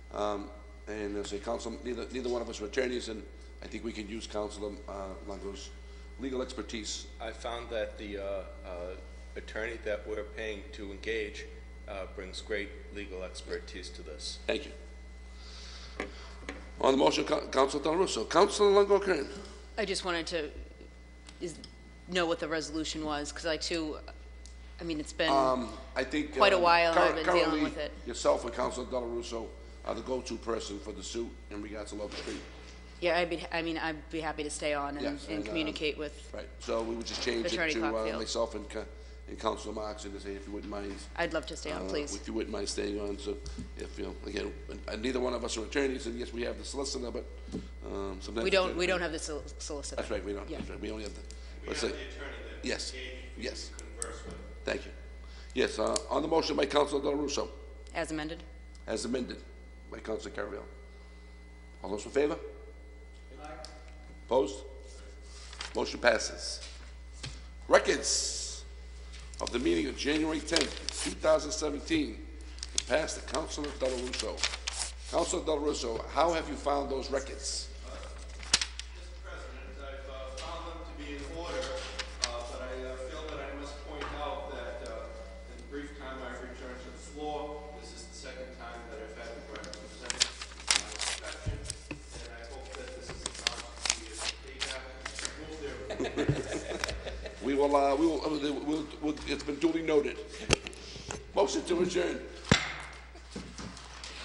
Um, And as a council, neither, neither one of us are attorneys, and I think we can use Councilor uh, Longo's legal expertise. I found that the uh, uh, attorney that we're paying to engage uh, brings great legal expertise to this. Thank you. On the motion, Coun- Councilor Del Russo. Councilor Longo Kern. I just wanted to is, know what the resolution was, because I too, I mean, it's been, Um, I think. Quite a um, while cur- I've been dealing currently, with it. Yourself and Councilor Del Russo are the go-to person for the suit in regards to Locust Street. yeah, I'd be, I mean, I'd be happy to stay on and, Yes, and, and um, communicate with, Right, so we would just change it Attorney to uh, Cockfield. myself and, Ca- and Councilor Marks, and to say, if you wouldn't mind. I'd love to stay on, uh, please. If you wouldn't mind staying on, so if, you know, again, and neither one of us are attorneys, and yes, we have the solicitor, but um, sometimes. We don't, we don't have the sol- solicitor. That's right, we don't, Yeah. that's right, we only have the. We have the attorney that. Yes, yes. Converse with. Thank you. Yes, uh, on the motion by Councilor Del Russo, As amended? as amended by Councilor Carviallo. All those in favor? Aye. Opposed? Motion passes. Records of the meeting of January 10th, 2017, passed to Councilor Del Russo. Councilor Del Russo, how have you found those records? Mr. President, I've uh, found them to be in order, uh, but I uh, feel that I must point out that uh, in the brief time I've returned to the floor, this is the second time that I've had the right to present my inspection, and I hope that this is not to be a big move there. We will, uh, we will, uh, we'll- we'll- it's been duly noted. Motion to adjourn.